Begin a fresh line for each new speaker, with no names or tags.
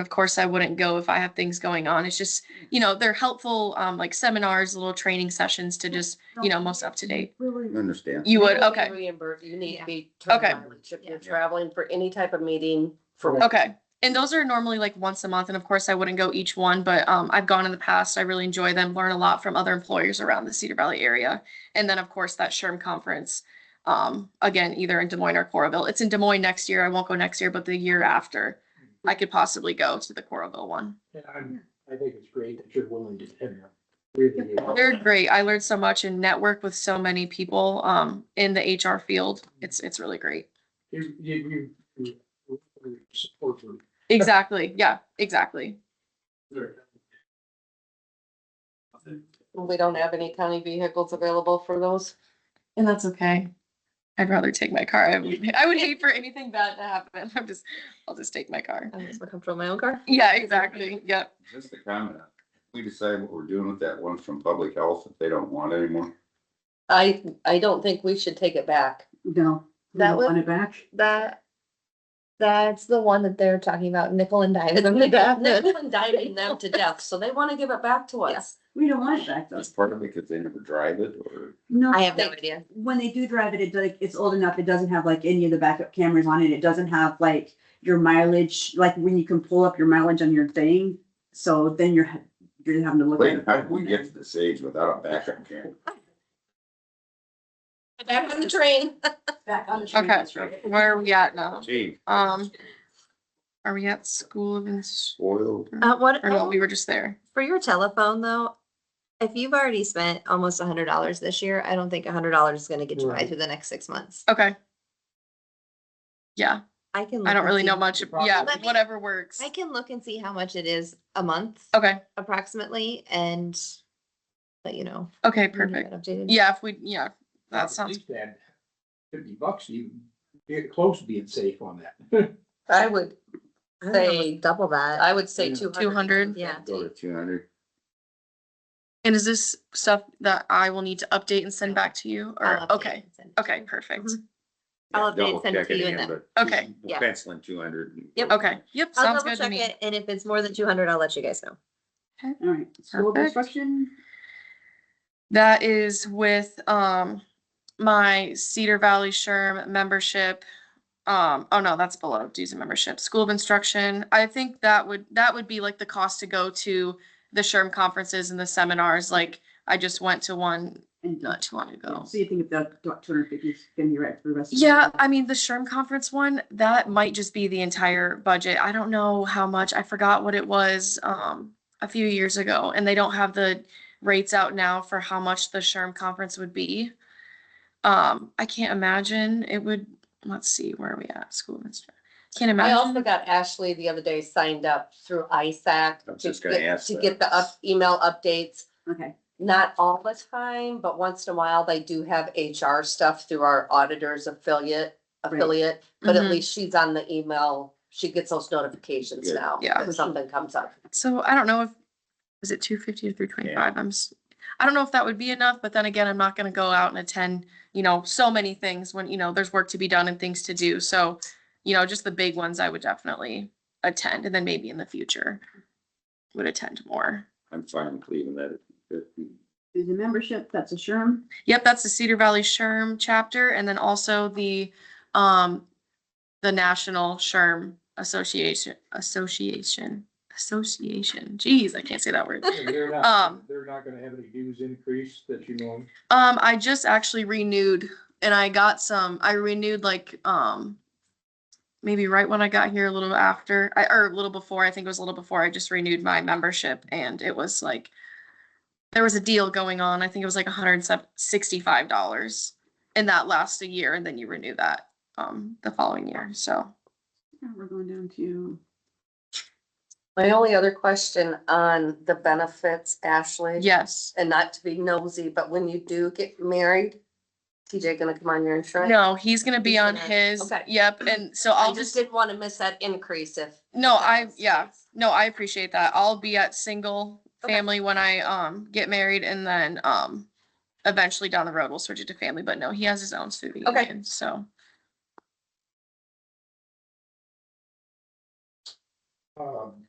of course, I wouldn't go if I have things going on. It's just, you know, they're helpful, um, like seminars, little training sessions to just, you know, most up to date.
Really,
I understand.
You would,
will be
okay,
Reimbursed, you need
Yeah.
to be.
Okay.
traveling. If
Yeah.
you're traveling for any type of meeting, for.
okay. And those are normally like once a month. And of course, I wouldn't go each one, but, um, I've gone in the past. I really enjoy them, learn a lot from other employers around the Cedar Valley area. And then, of course, that SHRM conference, um, again, either in Des Moines or Coralville. It's in Des Moines next year. I won't go next year, but the year after, I could possibly go to the Coralville one.
And I'm, I think it's great that you're willing to, attend them. really, uh,
They're great. I learned so much and networked with so many people um in the HR field. It's it's really great.
you, you, you, you support them.
Exactly. Yeah, exactly.
We don't have any county vehicles available for those.
And that's okay. I'd rather take my car. I would, I would hate for anything bad to happen. I'm just I'll just take my car.
I'm just comfortable in my own car.
Yeah, exactly. Yep.
Just a comment. We decide what we're doing with that one from public health if they don't want it anymore.
I, I don't think we should take it back.
no. we
That
don't
was-
Want it back?
That, that's the one that they're talking about, nickel and dime them to death.
They've been diving them to death, so they want to give it back to us.
We don't want it back though.
That's part of it because they never drive it or.
No.
I have no
they-
idea.
When they do drive it, it's like, it's old enough, it doesn't have like any of the backup cameras on it, it doesn't have like your mileage, like when you can pull up your mileage on your thing. So then you're, ha- you're having to look. at
Wait,
it.
how did we get to this age without a backup camera?
Back on the train.
Back on the train,
Okay.
that's right.
Where are we at now?
Gee,
Um are we at school of Ins-
oil.
Uh, what,
or no, we were just there.
for your telephone though, if you've already spent almost a hundred dollars this year, I don't think a hundred dollars is gonna get you by
Right.
through the next six months.
Okay. Yeah,
I can.
I
look
don't
and
really
see-
know much. Yeah,
Let me-
whatever works.
I can look and see how much it is a month
Okay.
approximately and let you know.
Okay,
when you
perfect.
get updated.
Yeah, if we yeah, that
At
sounds
least that Fifty bucks, you get close to being safe on that.
I would
I don't know,
say,
Double that.
I would say
Yeah.
two hundred.
200.
Yeah.
Go to two hundred.
And is this stuff that I will need to update and send back to you
I'll
or,
update
okay,
and send it.
okay, perfect.
Mhm. I'll update send it to you and
Okay.
Yeah.
Penciling two hundred.
Yep.
Okay, yep,
I'll
sounds
double
good to
check
me.
it and if it's more than two hundred, I'll let you guys know.
All right, school
Perfect.
construction,
That is with, um, my Cedar Valley Sherm membership. Um, oh no, that's below dues and membership, school of instruction. I think that would, that would be like the cost to go to the Sherm conferences and the seminars. Like I just went to one
and
not too long ago.
so you think if the two hundred fifty is gonna be right for the rest? of the
Yeah,
year?
I mean, the SHRM conference one, that might just be the entire budget. I don't know how much. I forgot what it was um a few years ago, and they don't have the rates out now for how much the SHRM conference would be. Um, I can't imagine it would, let's see, where are we at? School of Instru- Can't
I
imagine.
also got Ashley the other day signed up through ISAC.
I was
to
just gonna
get-
ask
To
that.
get the up, email updates,
Okay,
not all the time, but once in a while, they do have HR stuff through our auditors affiliate, affiliate. But
Mhm.
at least she's on the email, she gets those notifications
Good.
now,
Yeah.
if something comes up.
So I don't know if, is it two fifty or three twenty-five? I'm, s- I don't know if that would be enough, but then again, I'm not gonna go out and attend, you know, so many things when, you know, there's work to be done and things to do. So, you know, just the big ones I would definitely attend and then maybe in the future would attend more.
I'm fine with leaving that at fifty.
there's a membership, that's a SHRM,
Yep, that's the Cedar Valley Sherm chapter and then also the, um, the National Sherm Association, Association, Association. Geez, I can't say that word.
They're
Um.
not, they're not gonna have any dues increase that you know.
Um, I just actually renewed and I got some, I renewed like, um, maybe right when I got here, a little after, I, or a little before, I think it was a little before, I just renewed my membership and it was like, there was a deal going on. I think it was like hundred and sixty-five dollars and that lasts a year and then you renew that, um, the following year. So,
Now we're going down to.
My only other question on the benefits, Ashley.
yes.
And not to be nosy, but when you do get married, TJ gonna come on your insurance?
No, he's gonna be
He's
on
gonna-
his,
okay.
yep. And so
I
I'll
just
just,
didn't wanna miss that increase if.
no,
if that
I,
was the
yeah.
case.
No, I appreciate that. I'll be at single
Okay.
family when I um get married and then um eventually down the road we'll switch it to family, but no, he has his own student
Okay.
union, so.
Um,